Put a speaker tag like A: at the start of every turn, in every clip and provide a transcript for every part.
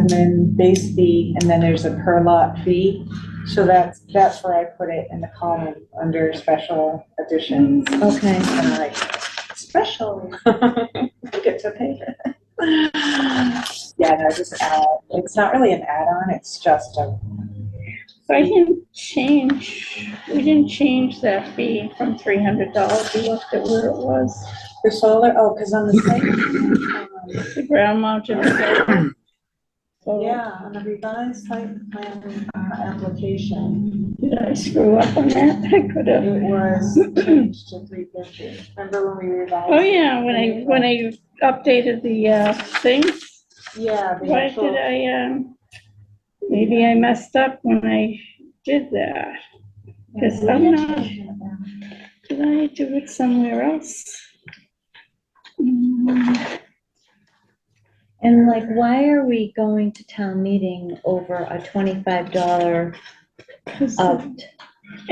A: admin base fee, and then there's a per lot fee. So that's, that's where I put it in the column under special additions.
B: Okay.
A: And I'm like, special, we get to pay her. Yeah, no, just add, it's not really an add-on, it's just a,
C: So I didn't change, we didn't change that fee from three hundred dollars, we left it where it was.
A: for solar, oh, because on the site. um,
C: The ground mounted. solar. So,
A: Yeah, on the revised site plan uh, application,
C: Did I screw up on that? I could have.
A: it was changed to three fifty. Remember when we revised?
C: Oh, yeah, when I, when I updated the, uh, thing,
A: Yeah, the
C: why
A: actual,
C: did I, um, maybe I messed up when I did that. Cause I'm not, did I do it somewhere else? Mm,
B: And like, why are we going to town meeting over a twenty-five dollar
C: 'cause
B: opt?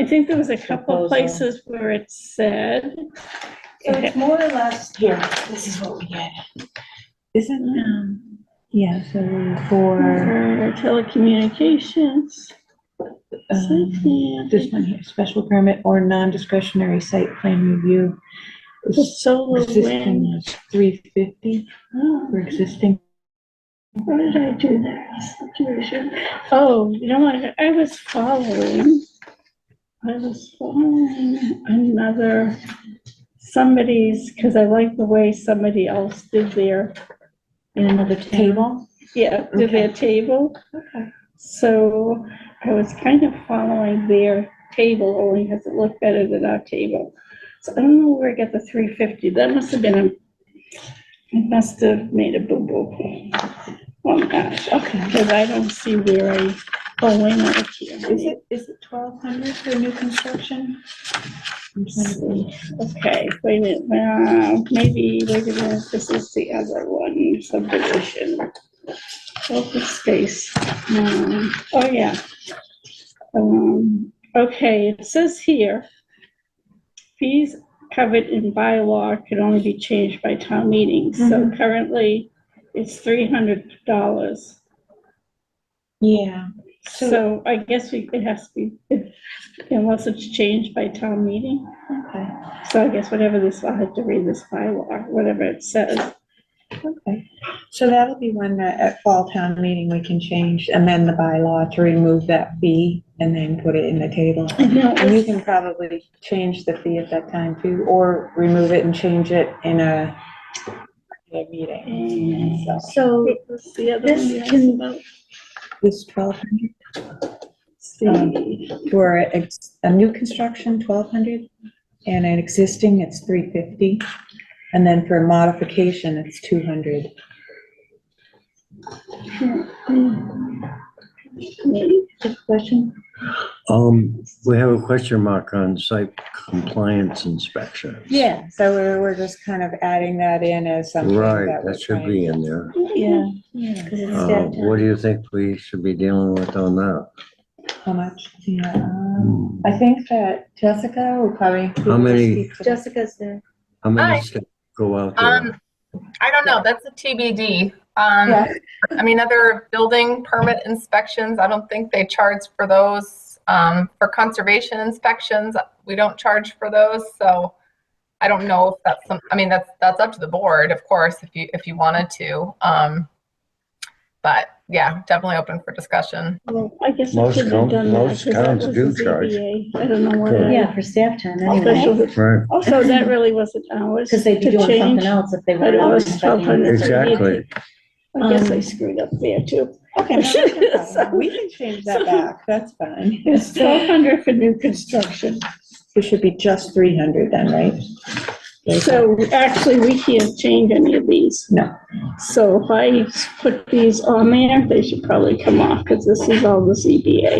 C: I think there was a couple
B: Uh, Proposal.
C: places where it said,
A: so it's more or less, here, this is what we get. Isn't it?
C: um,
B: Yeah, so for,
C: For telecommunications.
B: Um,
D: This one here, special permit or non-discretionary site plan review.
C: The
D: This
C: solar wind.
D: Existing was three fifty
C: Oh,
D: for existing.
C: Why did I do that? Situation. Oh, you know what, I was following. I was following another, somebody's, because I like the way somebody else did their
B: in another table?
C: Yeah, to their table.
A: Okay.
C: So I was kind of following their table only because it looked better than our table. So I don't know where I got the three fifty. That must have been a, I must have made a boo-boo. Oh, gosh, okay, because I don't see where I, oh, wait, no, it's here.
A: Is it, is it twelve hundred for new construction?
C: Okay, wait a minute, uh, maybe, wait a minute, this is the other one, subdivision. Open space, um, oh yeah. Um, okay, it says here. Fees covered in bylaw can only be changed by town meeting, so currently it's three hundred dollars.
A: Yeah. So-
C: So I guess we, it has to be, unless it's changed by town meeting.
A: Okay,
C: So I guess whatever this, I'll have to read this bylaw, whatever it says.
A: okay. So that'll be one that at fall town meeting, we can change, amend the bylaw to remove that fee and then put it in the table. And you can probably change the fee at that time too, or remove it and change it in a, in a meeting.
C: And
A: So
B: So
C: What's the other
B: This
C: one you asked
B: can-
C: about?
A: this twelve hundred
C: See,
A: for a, a new construction, twelve hundred, and an existing, it's three fifty. And then for a modification, it's two hundred.
B: question,
E: Um, we have a question mark on site compliance inspection.
A: Yeah, so we're, we're just kind of adding that in as something
E: Right,
A: that we're
E: that should
A: trying.
E: be in there.
B: um,
A: Yeah,
B: because it's
E: Uh,
B: staff
E: what
B: time.
E: do you think we should be dealing with on that?
A: how much? Yeah, um, I think that Jessica would probably.
E: Hmm. How many-
B: Jessica's there.
E: How
F: Hi.
E: many steps go out there?
F: Um, I don't know, that's a TBD. Um,
A: Yeah.
F: I mean, other building permit inspections, I don't think they charge for those. Um, for conservation inspections, we don't charge for those, so I don't know if that's some, I mean, that's, that's up to the board, of course, if you, if you wanted to. Um, but yeah, definitely open for discussion.
C: well, I guess. I
E: Most
C: shouldn't have
E: com-
C: done that,
E: most
C: 'cause that
E: towns
C: was
E: do
C: the
E: charge.
C: ZBA. I don't know what.
E: Correct.
B: Yeah, for staff time anyway,
C: Special-
E: Right,
C: Also, that really wasn't ours.
B: because they'd be
C: to
B: doing
C: change.
B: something else if they
C: but it
B: were.
C: was 1200.
E: exactly.
C: I guess I
B: Um,
C: screwed up there too.
A: Okay, no, that's no problem.
C: So-
A: we can change that back, that's fine.
C: It's twelve hundred for new construction.
A: It should be just three hundred then, right?
C: So actually, we can't change any of these.
A: No.
C: So if I put these on there, they should probably come off because this is all the ZBA.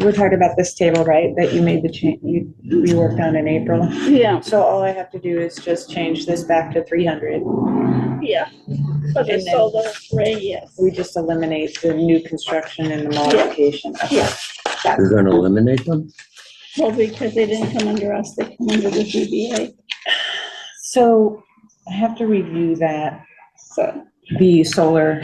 A: We're talking about this table, right, that you made the change, you, you worked on in April?
C: Yeah,
A: So all I have to do is just change this back to three hundred.
C: yeah. But it's
A: And then-
C: all the gray, yes.
A: We just eliminate the new construction and the modification.
C: Yeah.
E: You're gonna eliminate them?
C: Well, because they didn't come under us, they come under the ZBA,
A: So I have to review that.
C: so.
A: the solar